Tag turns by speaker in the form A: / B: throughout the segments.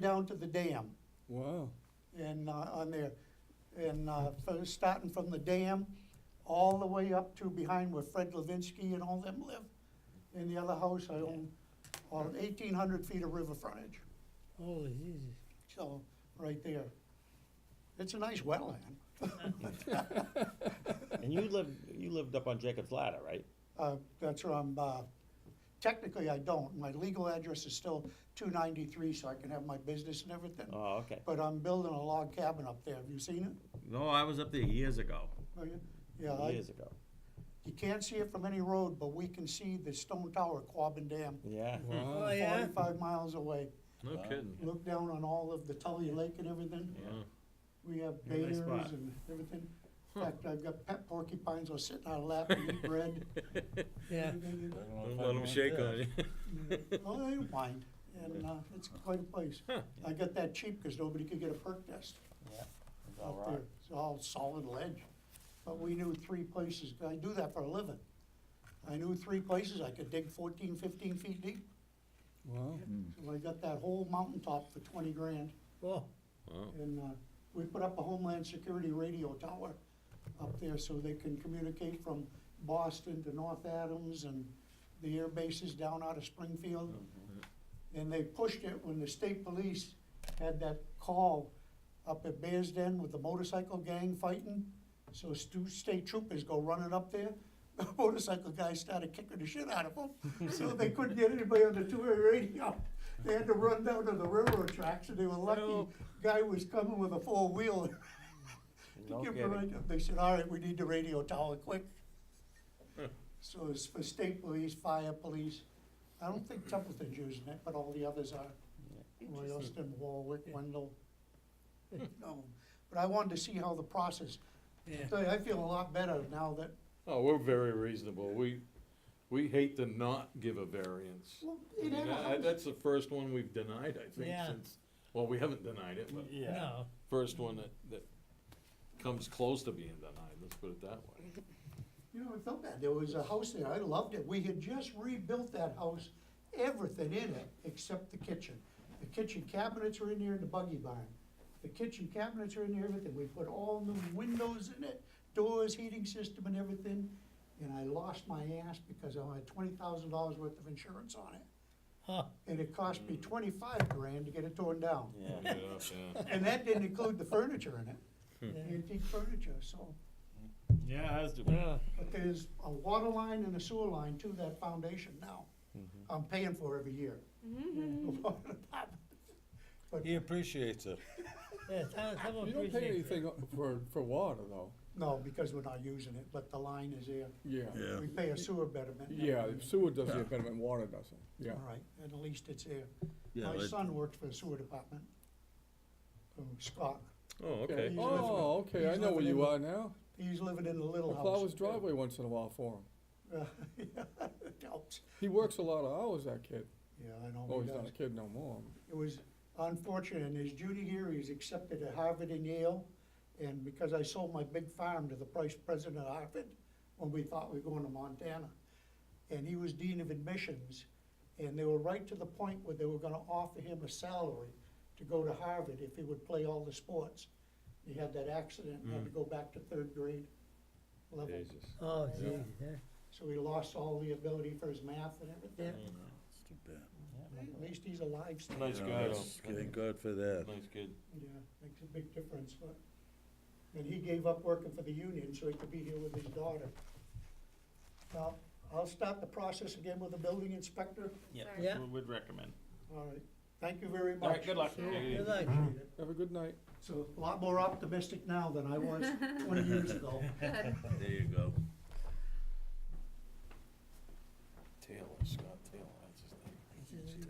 A: down to the dam
B: Wow.
A: and, uh, on there. And, uh, fir- starting from the dam, all the way up to behind where Fred Levinsky and all them live. In the other house, I own, on eighteen hundred feet of river frontage,
C: Holy Jesus.
A: so, right there. It's a nice wetland.
D: And you lived, you lived up on Jacob's Ladder, right?
A: Uh, That's where I'm, uh, technically I don't. My legal address is still 293, so I can have my business and everything.
D: Oh, okay.
A: But I'm building a log cabin up there. Have you seen it?
E: No, I was up there years ago.
A: Are you? Yeah, I-
D: Years ago.
A: you can't see it from any road, but we can see the stone tower, Quabbin Dam,
D: Yeah.
C: Oh,
B: Wow.
C: yeah?
A: 45 miles away.
E: No kidding.
A: Look down on all of the Tully Lake and everything.
E: Yeah.
A: We have
D: Yeah, nice
A: bears
D: spot.
A: and everything. In fact, I've got pet porcupines all sitting on our lap and eat bread.
C: Yeah.
E: Don't let them shake on you.
A: Well, they don't mind, and uh, it's quite a place. I got that cheap because nobody could get a perk test up there. It's all solid ledge. But we knew three places, I do that for a living. I knew three places I could dig 14, 15 feet deep.
B: Wow.
A: So I got that whole mountaintop for 20 grand.
C: Well,
E: Wow.
A: And uh, we put up a Homeland Security radio tower up there so they can communicate from Boston to North Adams and the air bases down out of Springfield. And they pushed it when the state police had that call up at Bears Den with the motorcycle gang fighting. So stu- state troopers go running up there. The motorcycle guy started kicking the shit out of them, so they couldn't get anybody on the two-way radio. They had to run down to the railroad tracks, and they were
E: No.
A: lucky. Guy was coming with a four-wheeler.
D: No
A: Give the
D: kidding.
A: radio- They said, all right, we need the radio tower quick. So it's for state police, fire police. I don't think Templeton's using it, but all the others are. Royalston, Warwick, Wendell. No, but I wanted to see how the process,
C: yeah.
A: So I feel a lot better now that,
F: Oh, we're very reasonable. We, we hate to not give a variance.
A: well,
F: I
A: it
F: mean,
A: had a
F: I-
A: house.
F: That's the first one we've denied, I think,
C: Yeah.
F: since, well, we haven't denied it, but
B: Yeah.
C: No.
F: first one that, that comes close to being denied, let's put it that way.
A: You know, I felt bad. There was a house there. I loved it. We had just rebuilt that house, everything in it except the kitchen. The kitchen cabinets are in there and the buggy barn. The kitchen cabinets are in there, everything. We put all new windows in it, doors, heating system and everything. And I lost my ass because I had twenty thousand dollars worth of insurance on it.
C: Huh.
A: And it cost me twenty-five grand to get it torn down.
D: Yeah.
F: Yeah, yeah.
A: And that didn't include the furniture in it,
C: Yeah.
A: antique furniture, so.
B: Yeah, has to
C: Yeah.
A: But there's a water line and a sewer line to that foundation now. I'm paying for every year.
B: Mm-hmm. He appreciates it.
C: Yeah, some- some
B: You don't pay
C: appreciate it.
B: anything for, for water, though.
A: No, because we're not using it, but the line is there.
B: Yeah.
A: We pay a sewer betterment.
B: Yeah, sewer does the betterment, water doesn't,
A: All
B: yeah.
A: right, at least it's there.
E: Yeah,
A: My
E: but-
A: son works for the sewer department, from Scott.
E: Oh,
B: Okay.
E: okay.
B: Oh, okay, I know where you are now.
A: He's living in a little
B: I
A: house.
B: plow his driveway once in a while for him.
A: It helps.
B: He works a lot of hours, that kid.
A: Yeah, I know.
B: Oh,
A: he
B: he's not
A: does.
B: a kid no more.
A: It was unfortunate, in his junior year, he was accepted at Harvard and Yale, and because I sold my big farm to the vice president of Harvard, when we thought we were going to Montana, and he was dean of admissions, and they were right to the point where they were gonna offer him a salary to go to Harvard if he would play all the sports. He had that accident, and had to go back to third grade level,
E: Jesus.
C: Oh, Jesus, yeah.
A: so he lost all the ability for his math and
C: Yeah.
A: everything.
G: It's too bad.
A: At least he's alive still.
F: Nice guy,
G: Yeah,
F: though.
G: Thank God for that.
F: Nice kid.
A: Yeah, makes a big difference, but, and he gave up working for the union so he could be here with his daughter. Now, I'll start the process again with the building inspector.
D: Yeah.
C: Yeah.
D: We would recommend.
A: All right, thank you very much.
D: All right, good luck.
C: Good luck.
A: Appreciate it.
B: Have a good night.
A: So a lot more optimistic now than I was twenty years ago.
E: There you go.
F: Taylor, Scott Taylor, that's his name.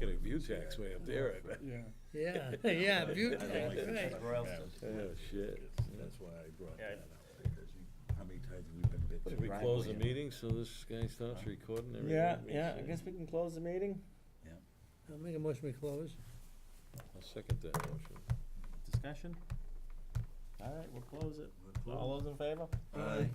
F: Get a view tax way up there, I bet.
B: Yeah.
C: Yeah, yeah, beautiful, right.
G: Oh, shit. That's why I brought
D: Yeah.
G: that up. because you- How many times have we been bitten?
F: Should we close the meeting so this guy stops recording everything?
D: Yeah, yeah, I guess we can close the meeting.
C: I'll make a motion we close.
F: I'll second that motion.
D: Discussion? All right, we'll close it. All those in favor?
C: Aye.